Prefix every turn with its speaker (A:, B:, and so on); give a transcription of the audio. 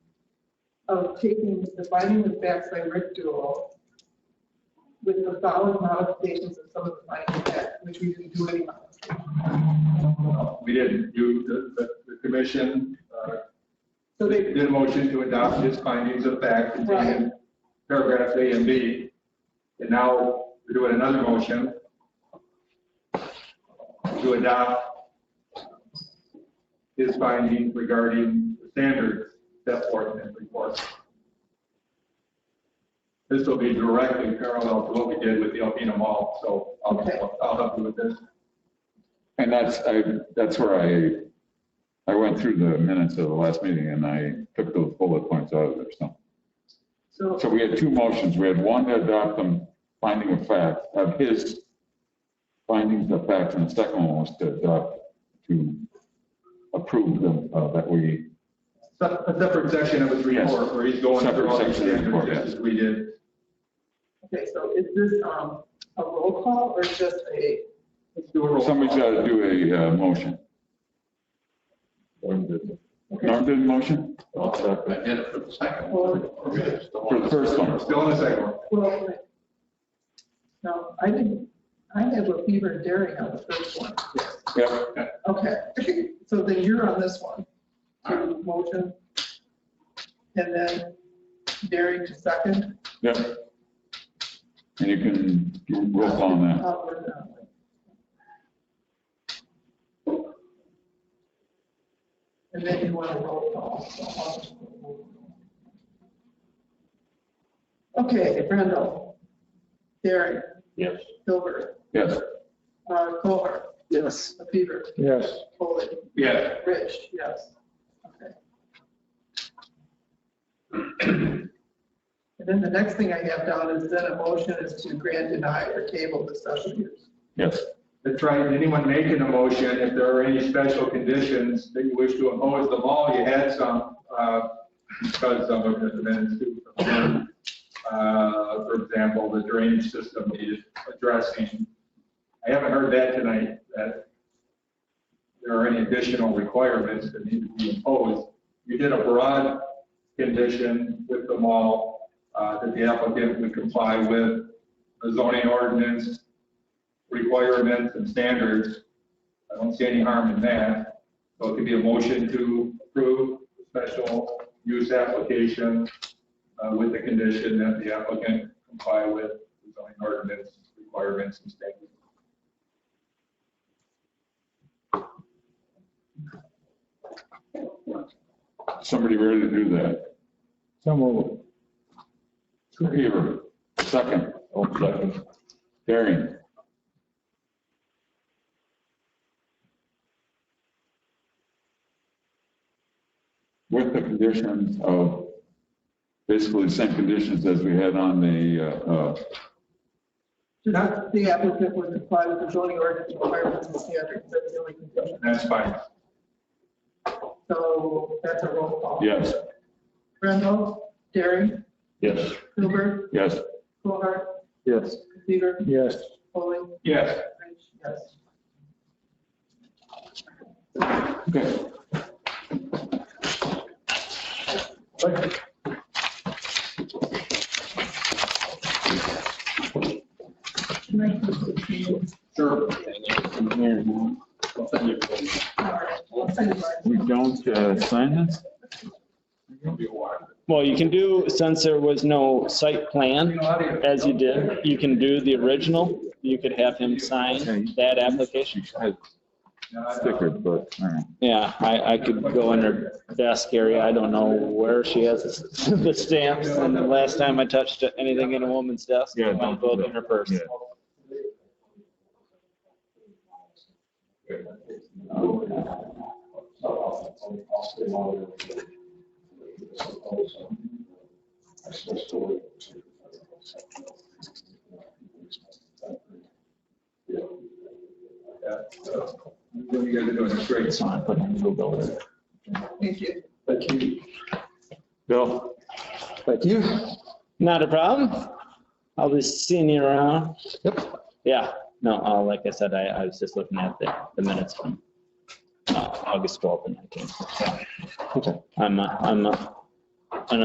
A: of taking the finding of facts by Rick Dool with the following modifications of some of the finding of facts, which we didn't do anyhow.
B: Uh, We didn't do, the, the, the commission, uh,
A: So they,
B: did a motion to adopt his findings of fact contained in paragraphs A and B. And now we're doing another motion to adopt his findings regarding the standards set forth in his report. This will be directly parallel to what we did with the Alpena Mall, so I'll, I'll help you with this.
C: And that's, I, that's where I, I went through the minutes of the last meeting and I took those bullet points out of there, so.
A: so,
C: So we had two motions. We had one to adopt them, finding of fact, of his findings of fact, and the second one was to adopt, to approve them, uh, that we,
B: Se- A separate section of his report where he's going through all
C: Separate
B: these
C: section of the report,
B: standards, just as we did.
A: okay, so is this, um, a roll call or just a,
B: Let's do a roll.
C: somebody's got to do a, uh, motion. Norm did a motion?
D: I did it for the second one.
C: For the first one.
B: Still on the second one.
A: well, no, I didn't, I have a fever and dairy on the first one.
C: Yep.
A: Okay, so then you're on this one. So motion. And then Derek to second.
C: Yep. And you can do roll call on that.
A: Outward, outward. And then you want to roll call. so I'll just go roll call. Okay, Randall. Derek.
D: Yes.
A: Hilbert.
C: Yes.
A: Uh, Kohler. Yes. Peter.
E: Yes.
A: Foley.
B: Yeah,
A: Rich, yes. Okay. And then the next thing I have down is then a motion is to grant, deny, or table the special use.
C: Yes.
B: that's right. Anyone making a motion, if there are any special conditions that you wish to impose, the law, you had some, uh, because some of the amendments too. Uh, for example, the drainage system needed addressing. I haven't heard that tonight, that there are any additional requirements that need to be imposed. You did a broad condition with the mall, uh, that the applicant would comply with the zoning ordinance, requirements and standards. I don't see any harm in that. So it could be a motion to approve the special use application uh, with the condition that the applicant comply with the zoning ordinance requirements and standards.
C: Somebody ready to do that?
E: So moved.
C: Hebert, second. Oh, second. Darian. With the conditions of, basically the same conditions as we had on the, uh, uh,
A: Just the applicant would comply with the zoning ordinance requirements and standards, that's the only condition.
B: That's fine.
A: So that's a roll call.
C: yes,
A: Randall, Derry,
D: Yes.
A: Hoover,
C: yes.
A: Kohler,
E: Yes.
A: Peter,
E: Yes.
A: Foley,
B: Yes.
A: Rich, yes.
C: Okay.
A: Can I just continue?
B: Sure.
A: All right, I'll send it back.
C: We don't, uh, sign this?
F: Well, you can do, since there was no site plan, as you did, you can do the original. You could have him sign that application.
C: Sticker, but, all right.
F: Yeah, I, I could go in her desk area. I don't know where she has the stamps. And the last time I touched anything in a woman's desk,
C: Yeah,
F: I
C: don't
F: might
C: do
F: go
C: that.
F: in her purse.
C: Yeah.
B: What you guys are doing is great.
A: Thank you.
C: Bill?
E: Thank you.
F: Not a problem. I'll be seeing you around.
E: Yep.
F: Yeah, no, uh, like I said, I, I was just looking at the, the minutes from uh, August 12th and 19th.
E: Okay.
F: I'm, uh, I'm uh,